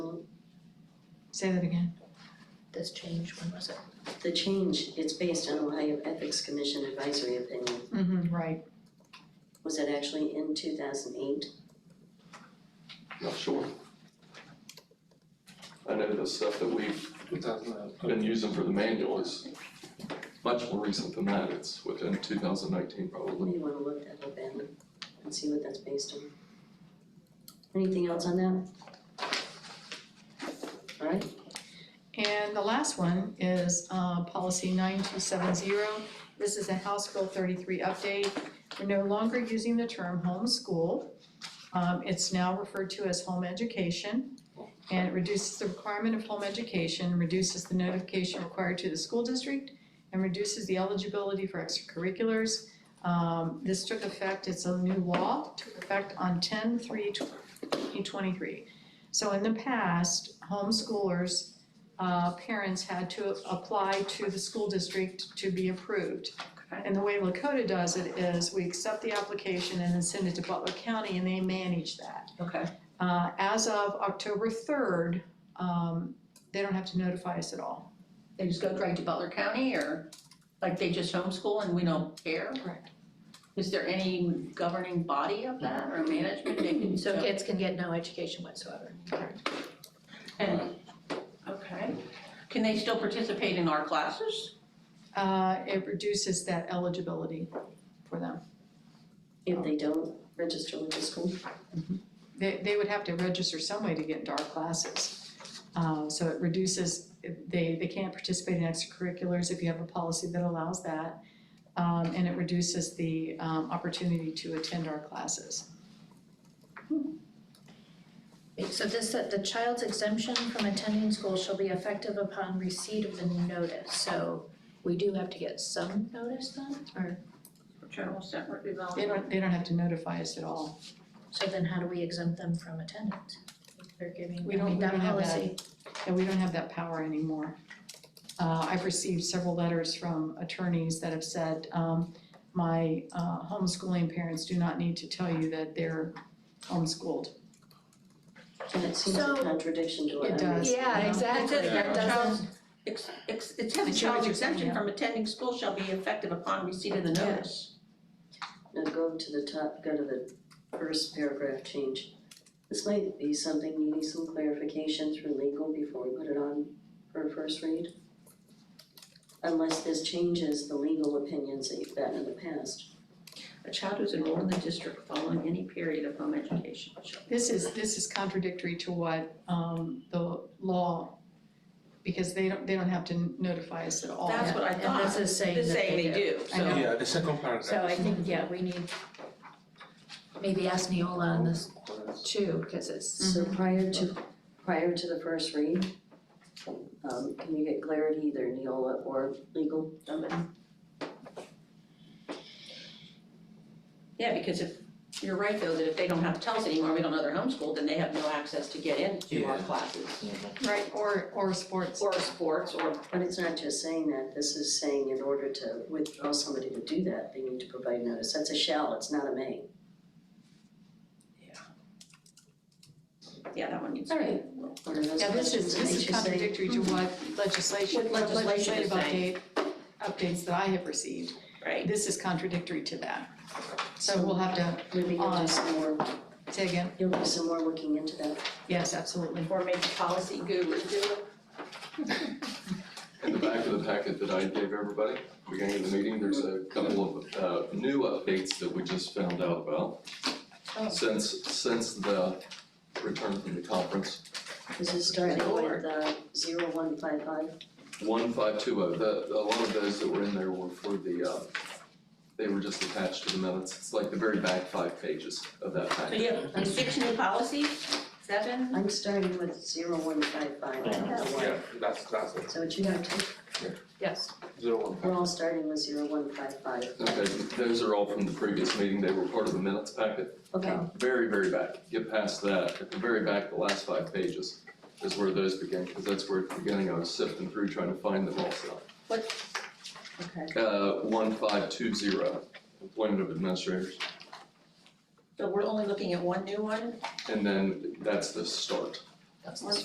Say that again. This change, when was it? The change, it's based on Ohio Ethics Commission advisory opinion. Mm-hmm, right. Was it actually in two thousand eight? Not sure. I know the stuff that we've been using for the manual is much more recent than that. It's within two thousand nineteen probably. Maybe you wanna look that up, Adam, and see what that's based on. Anything else on that? Alright, And the last one is uh, policy 9270. This is a House Bill 33 update. We're no longer using the term homeschool. Um, It's now referred to as home education. And it reduces the requirement of home education, reduces the notification required to the school district, and reduces the eligibility for extracurriculars. Um, This took effect, it's a new law, took effect on 10/3/2023. So in the past, homeschoolers uh, parents had to apply to the school district to be approved. And the way Lakota does it is we accept the application and then send it to Butler County and they manage that. Okay. Uh, as of October third, um, they don't have to notify us at all. They just go direct to Butler County or like they just homeschool and we don't care? Correct. Is there any governing body of that or management they can, So so, kids can get no education whatsoever. and, okay. Can they still participate in our classes? Uh, it reduces that eligibility for them. if they don't register with the school, They, they would have to register some way to get into our classes. Uh, so it reduces, they, they can't participate in extracurriculars if you have a policy that allows that. Um, and it reduces the, um, opportunity to attend our classes. So this, that the child's exemption from attending school shall be effective upon receipt of the notice. So we do have to get some notice then, or, For General separate They development? don't, they don't have to notify us at all. so then how do we exempt them from attendance? If They're giving, We I don't- mean, we that don't have that. policy, And we don't have that power anymore. Uh, I've received several letters from attorneys that have said, um, my, uh, homeschooling parents do not need to tell you that they're homeschooled. and it seems a So- contradiction to what It I'm does. yeah, Yeah. exactly, It says that that child's, doesn't, ex, ex, it says I a see what child's you're saying, exemption yeah. from attending school shall be effective upon receipt of the Yeah. notice. Now go to the top, go to the first paragraph change. This might be something needing some clarification through legal before we put it on for a first read. Unless this changes the legal opinions that you've gotten in the past. A child who's enrolled in the district following any period of home education shall. This is, this is contradictory to what, um, the law, because they don't, they don't have to notify us at all. That's what I and this thought, is saying that this saying they they do. do, so. I know. Yeah, the second paragraph. So I think, yeah, we need, maybe ask Neola on this too, because it's, So prior to, prior to the first read, um, can you get clarity either Neola or legal? Yeah, because if, you're right though, that if they don't have to tell us anymore, we don't know they're homeschooled, then they have no access to get into our Yeah. classes. Right, or, or sports. Or sports or, But it's not just saying that, this is saying in order to withdraw somebody to do that, they need to provide notice. That's a shall, it's not a may. yeah, that one needs to All be. right. What are those Yeah, this questions is, that this makes is you say? contradictory to what legislation, Mm-hmm. What legislation is legislative update, updates that I have received. Right. This is contradictory to that. So we'll have to, Maybe you'll do some more, say again, you'll do some more looking into that. yes, absolutely. Or maybe policy guru do it. In the back of the packet that I gave everybody, beginning of the meeting, there's a couple of uh new updates that we just found out about. Since since the return from the conference, This is starting Lord. with uh zero one five five. one five two oh, the a lot of those that were in there were for the uh. They were just attached to the minutes, it's like the very back five pages of that So packet. you have six new policies, seven? I'm starting with zero one five five, I don't know Yeah, why. that's, that's it, So what you have to, yes, zero one we're five. all starting with zero one five five. Okay, those are all from the previous meeting, they were part of the minutes packet. Okay, very, very back, get past that, at the very back, the last five pages is where those begin, because that's where at the beginning I was sifting through trying to find them also. okay. Uh, one five two zero, appointment of administrators, So we're only looking at one new one? and then that's the start. that's One